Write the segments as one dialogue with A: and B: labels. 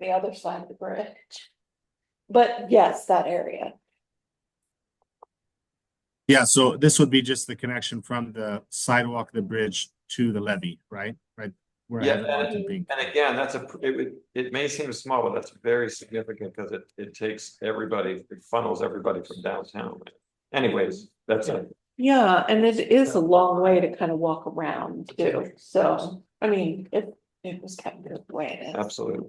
A: the other side of the bridge. But yes, that area.
B: Yeah, so this would be just the connection from the sidewalk, the bridge to the levee, right? Right? Where I
C: Yeah,
B: have it marked in
C: and-
B: pink.
C: And again, that's a, pr- it would, it may seem small, but that's very significant because it, it takes everybody, it funnels everybody from downtown. Anyways, that's it.
A: Yeah, and it is a long way to kind of walk around too, so, I mean, it, it was kind of the way it is.
C: Absolutely.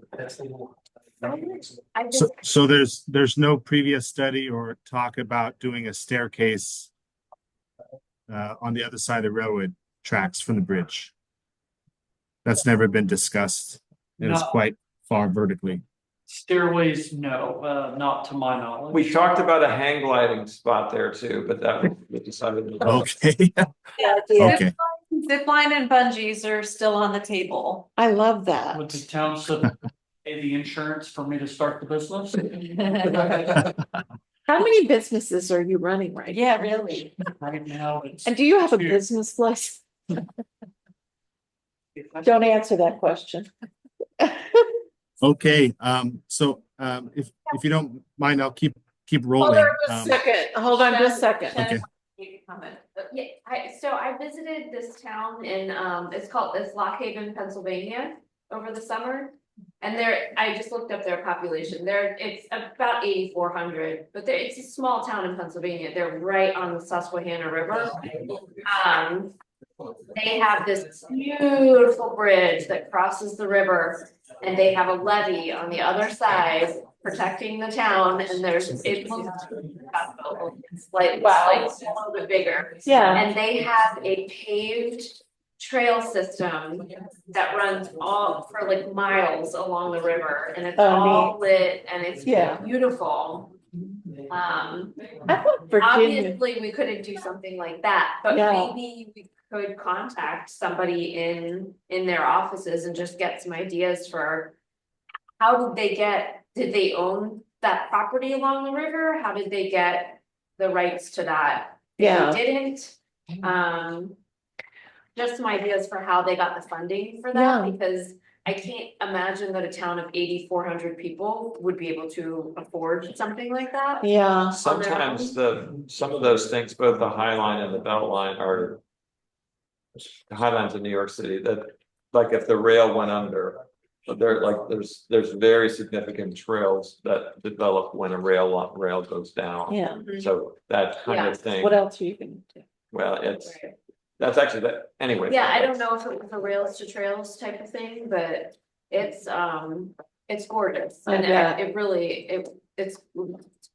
D: I just,
B: So, so there's, there's no previous study or talk about doing a staircase uh, on the other side of the railroad tracks from the bridge. That's never been discussed. and It's
E: No.
B: quite far vertically.
E: Stairways, no, uh, not to my knowledge.
C: We talked about a hang gliding spot there too, but that was we decided. to-
B: Okay,
A: Oh,
B: okay.
F: Zip line and bungees are still on the table.
A: I love that.
E: Would the township pay the insurance for me to start the business?
A: How many businesses are you running right? now?
F: Yeah, really.
E: Right now, it's.
A: And do you have a
E: Two.
A: business license? Don't answer that question.
B: Okay, um, so, um, if, if you don't mind, I'll keep, keep rolling. Um,
A: second, hold on just a second.
B: Okay.
F: Comment.
D: yeah, I, so I visited this town in, um, it's called, it's Lock Haven, Pennsylvania, over the summer. And there, I just looked up their population, there, it's about eighty-four hundred, but there, it's a small town in Pennsylvania, they're right on the Susquehanna River. Um, they have this beautiful bridge that crosses the river, and they have a levee on the other side protecting the town, and there's, it looks it's like, wow, it's a little bit bigger.
A: Yeah,
D: And they have a paved trail system that runs all for like miles along the river, and it's
A: Oh,
D: all lit, and it's
A: Yeah.
D: beautiful. Um,
A: I thought Virginia,
D: Obviously, we couldn't do something like that, but
A: Yeah.
D: maybe we could contact somebody in, in their offices and just get some ideas for. How did they get, did they own that property along the river? How did they get the rights to that?
A: yeah.
D: They didn't, um. Just some ideas for how they got the funding for
A: Yeah.
D: that, because I can't imagine that a town of eighty-four hundred people would be able to afford something like that.
A: Yeah,
C: Sometimes the, some of those things, both the High Line and the Belt Line are. the High Lines in New York City, that, like if the rail went under. But there like, there's, there's very significant trails that develop when a rail, lo- rail goes down.
A: yeah.
C: So that kind of thing,
A: What else are you gonna do?
C: well, it's,
D: Right.
C: that's actually that, anyway.
D: Yeah, I don't know if it was a rails to trails type of thing, but it's, um, it's gorgeous
A: I
D: and
A: bet.
D: it it really, it, it's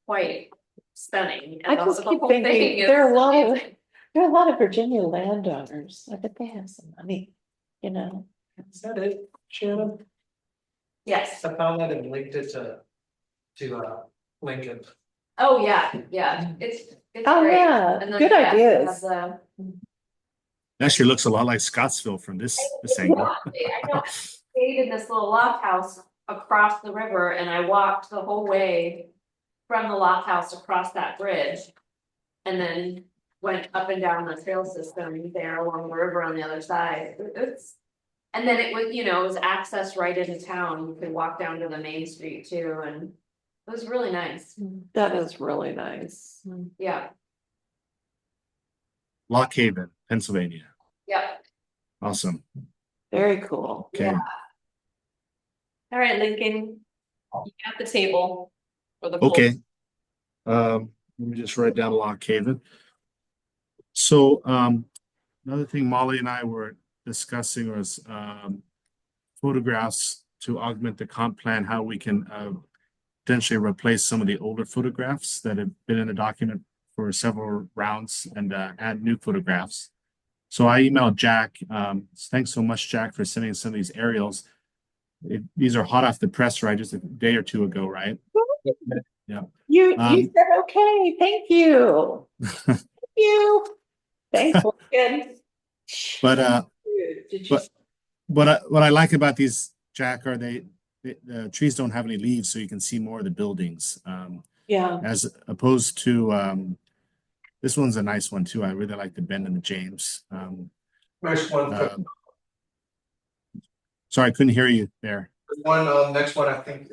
D: quite stunning.
A: I
D: and
A: just
D: also the
A: keep
D: whole
A: thinking
D: thing is
A: there are a lot of-
D: amazing.
A: There are a lot of Virginia landowners. I bet they have some money, you know?
G: Is that it, Shannon?
D: Yes,
G: I found that and linked it to, to, uh, Lincoln.
D: oh, yeah, yeah, it's, it's
A: Oh,
D: great.
A: yeah,
D: And then,
A: good
D: yeah, it
A: ideas.
D: has a-
B: Actually looks a lot like Scottsville from this, this angle.
D: I know, I stayed in this little loft house across the river and I walked the whole way from the loft house across that bridge. And then went up and down the trail system there along the river on the other side, It- it's. And then it was, you know, it was access right into town, you could walk down to the main street too, and it was really nice,
A: That is really nice.
D: yeah,
B: Lock Haven, Pennsylvania.
D: yep.
B: Awesome.
A: Very cool.
B: Okay.
F: All right, Lincoln. You got the table. for the poll.
B: Okay. Um, let me just write down Lock Haven. So, um, another thing Molly and I were discussing was, um, photographs to augment the comp plan, how we can, uh, potentially replace some of the older photographs that have been in the document for several rounds and, uh, add new photographs. So I emailed Jack, um, thanks so much, Jack, for sending some of these aerials. It- These are hot off the press, right? Just a day or two ago, right?
A: You, you
B: Um,
A: said, okay, thank you. Thank You. Thanks, Lincoln.
B: But uh,
A: Did you
B: but- what I, what I like about these, Jack, are they, the, the trees don't have any leaves, so you can see more of the buildings. Um,
A: Yeah,
B: as opposed to, um, this one's a nice one too. I really like the Ben and the James. Um,
G: Next one,
B: Uh, um, sorry, I couldn't hear you there.
G: one, um, next one, I think